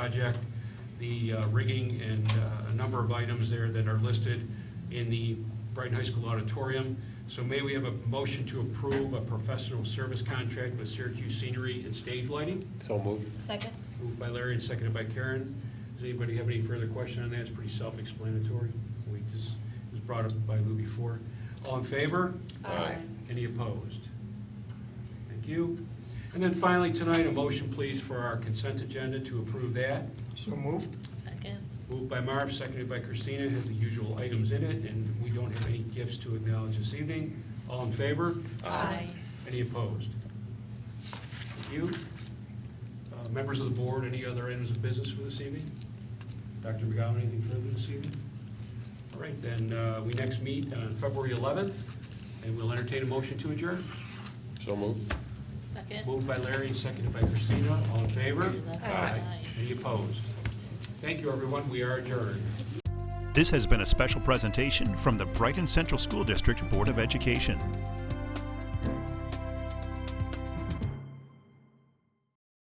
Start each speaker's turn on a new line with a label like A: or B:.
A: project, the uh, rigging and uh, a number of items there that are listed in the Brighton High School auditorium. So may we have a motion to approve a professional service contract with Syracuse Scenery and Stage Lighting?
B: So moved.
C: Second?
A: Moved by Larry and seconded by Karen. Does anybody have any further question on that? It's pretty self-explanatory. We just, it was brought up by Lou before. All in favor?
C: Aye.
A: Any opposed? Thank you. And then finally, tonight, a motion, please, for our consent agenda to approve that.
D: So moved?
C: Second?
A: Moved by Marv, seconded by Christina, has the usual items in it, and we don't have any gifts to acknowledge this evening. All in favor? Any opposed? Thank you. Uh, Members of the board, any other items of business for this evening? Dr. McGowan, anything further this evening? All right, then, uh, we next meet on February 11th, and we'll entertain a motion to adjourn.
B: So moved.
C: Second?
A: Moved by Larry, seconded by Christina, all in favor?
C: Aye.
A: Any opposed? Thank you, everyone, we are adjourned.
E: This has been a special presentation from the Brighton Central School District Board of Education.